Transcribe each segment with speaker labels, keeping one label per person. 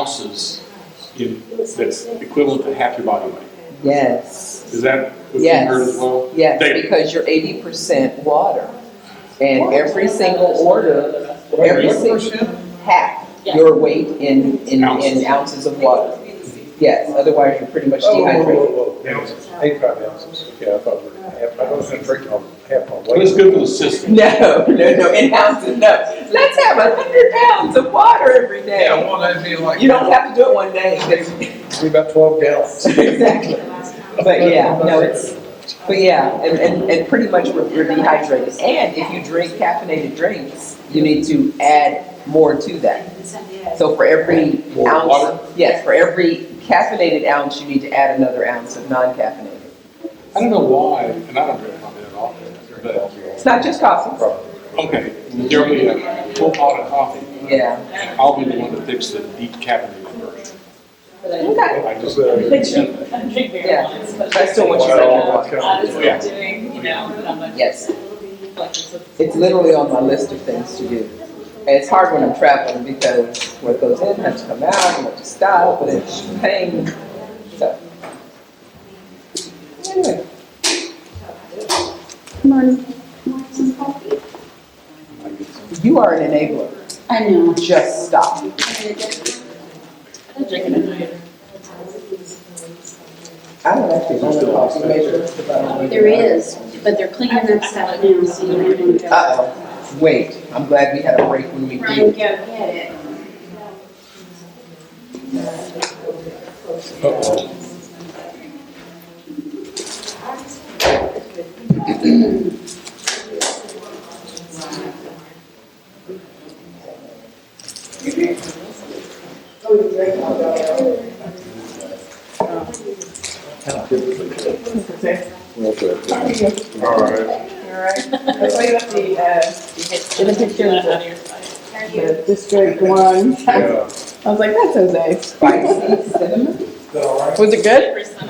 Speaker 1: ounces in, that's equivalent to half your body weight.
Speaker 2: Yes.
Speaker 1: Is that what you heard as
Speaker 2: Yes,
Speaker 1: well?
Speaker 2: yes,
Speaker 1: Daily.
Speaker 2: because you're eighty percent water. And every single order, every single half your weight in, in,
Speaker 1: Ounces.
Speaker 2: in ounces of water. Yes, otherwise you're pretty much
Speaker 3: Oh, whoa,
Speaker 2: dehydrated.
Speaker 3: whoa, whoa, whoa. Eighty-five ounces, yeah, I thought, we were half- I was gonna drink all, half my
Speaker 1: Well, it's
Speaker 3: weight.
Speaker 1: good for the system.
Speaker 2: No, no, no, in ounces, no. Let's have a hundred pounds of water every day.
Speaker 3: well, that'd be like.
Speaker 2: You don't have to do it one day.
Speaker 3: Be about twelve gallons.
Speaker 2: Exactly. But yeah, no, it's, but yeah, and, and, and pretty much we're, we're dehydrated. And if you drink caffeinated drinks, you need to add more to that. So for every
Speaker 1: More water?
Speaker 2: ounce, yes, for every caffeinated ounce, you need to add another ounce of non-caffeinated.
Speaker 1: I don't know why, and I don't drink coffee at all,
Speaker 3: uh,
Speaker 1: but,
Speaker 2: It's not just coffee.
Speaker 1: okay, generally a full pot of coffee.
Speaker 2: Yeah.
Speaker 1: And I'll be the one that picks the decaffeinated version.
Speaker 2: Okay.
Speaker 1: I just, uh,
Speaker 4: But you can drink beer
Speaker 2: Yeah.
Speaker 4: once, but
Speaker 2: I still want you
Speaker 3: Wow.
Speaker 2: to.
Speaker 4: I was
Speaker 1: Yeah.
Speaker 4: doing, you know, and I'm like.
Speaker 2: Yes,
Speaker 4: like, it's a-
Speaker 2: it's literally on my list of things to do. And it's hard when I'm traveling because what goes in has to come out, and what to stop, and it's pain, so. Anyway,
Speaker 5: Morning. Want some coffee?
Speaker 2: you are an enabler.
Speaker 5: I know.
Speaker 2: Just stop.
Speaker 5: I'm drinking it.
Speaker 2: I don't actually know the coffee maker, but I don't
Speaker 5: There
Speaker 2: know.
Speaker 5: is, but they're cleaning up stuff now, so you might want to
Speaker 2: Ah.
Speaker 5: go.
Speaker 2: Uh-oh, wait, I'm glad we had a break when we
Speaker 5: Ryan, go
Speaker 2: did.
Speaker 5: get it.
Speaker 3: All right.
Speaker 6: That's why you have the, uh,
Speaker 4: It's a picture of your side.
Speaker 6: the District One. I
Speaker 3: Yeah.
Speaker 6: was like, that's Jose's.
Speaker 2: Spicy cinnamon?
Speaker 6: Was it good?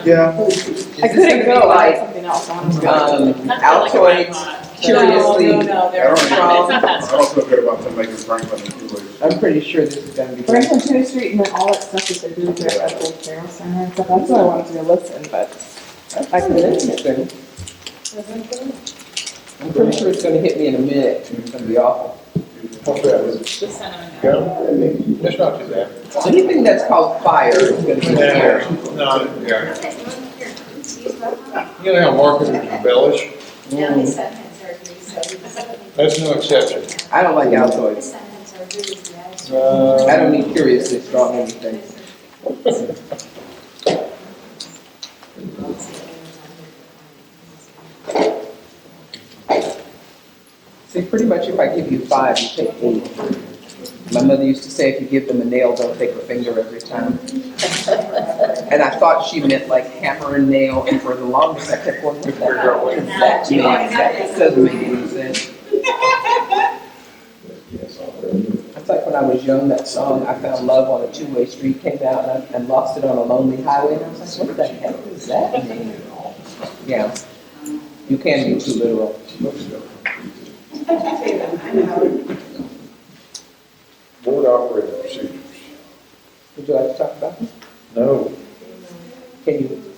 Speaker 3: Yeah.
Speaker 6: I
Speaker 2: Is this
Speaker 6: couldn't
Speaker 2: gonna
Speaker 6: go
Speaker 2: be
Speaker 6: like
Speaker 2: like,
Speaker 6: something else. I wanted to go.
Speaker 2: um,
Speaker 4: Not like what I
Speaker 2: Altoids,
Speaker 4: thought.
Speaker 2: curiously
Speaker 4: No, no, no, they're,
Speaker 3: I
Speaker 4: it's
Speaker 3: don't
Speaker 2: know.
Speaker 4: not that
Speaker 3: I
Speaker 4: strong.
Speaker 3: also heard about them making Franklin in two weeks.
Speaker 2: I'm pretty sure this is gonna be great.
Speaker 6: Franklin Twenty Street and then all that stuff that they do there at the old Carroll Center and stuff. That's what I wanted to go listen, but
Speaker 2: I can listen to it. I'm pretty sure it's gonna hit me in a minute, it's gonna be awful.
Speaker 3: What's that?
Speaker 4: The cinnamon.
Speaker 3: Yeah. That's not too bad.
Speaker 2: Anything that's called fire is gonna be scary.
Speaker 3: No, yeah. You know how marketers embellish? That's no exception.
Speaker 2: I don't like Altoids, I
Speaker 3: Uh,
Speaker 2: don't need curiously strong anything. See, pretty much if I give you five, you take eight. My mother used to say if you give them a nail, they'll take a finger every time. And I thought she meant like hammer and nail, and for the longest I kept going with that. What does that mean? That just doesn't make any sense. It's like when I was young, that song, I Found Love on a Two-Way Street came out, and I, and lost it on a lonely highway, and I was like, what the heck does that mean? Yeah, you can be too literal.
Speaker 3: Board operating procedures.
Speaker 2: Would you like to talk about them?
Speaker 3: No.
Speaker 2: Can you,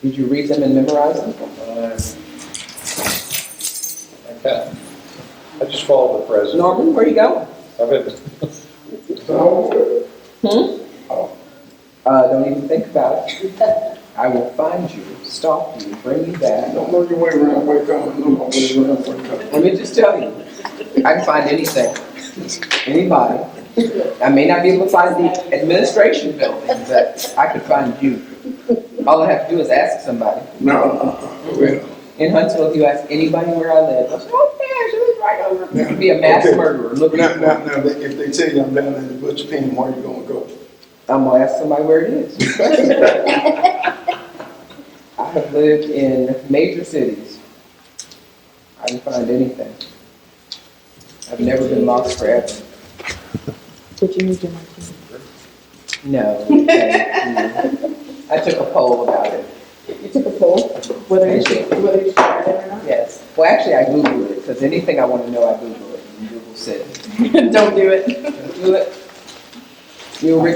Speaker 2: did you read them and memorize them?
Speaker 3: I can't. I just follow the president.
Speaker 2: Norman, where you going?
Speaker 3: I've been,
Speaker 2: Uh, don't even think about it. I will find you, stalk you, bring you back.
Speaker 7: Don't look your way around, wake up, look my way around, wake up.
Speaker 2: Let me just tell you, I can find anything, anybody. I may not be able to find the administration building, but I could find you. All I have to do is ask somebody.
Speaker 7: No, uh, well,
Speaker 2: In Huntsville, if you ask anybody where I live, they'll say, oh, yeah, she lives right over. there." You'd be a mass
Speaker 7: Okay.
Speaker 2: murderer looking
Speaker 7: now,
Speaker 2: for
Speaker 7: now, now, they- if they tell you I'm down in the butcher pen, where you gonna go?
Speaker 2: I'm gonna ask somebody where it is. I have lived in major cities. I can find anything. I've never been lost forever.
Speaker 6: did you need your martini?
Speaker 2: No. thank you. Mm. I took a poll about it,
Speaker 6: You took a poll, whether you should, whether you should try it or
Speaker 2: yes. Well, actually, I Googled it, because anything I want to know, I Google it, and Google said,
Speaker 6: not. Don't do it.
Speaker 2: do it. You were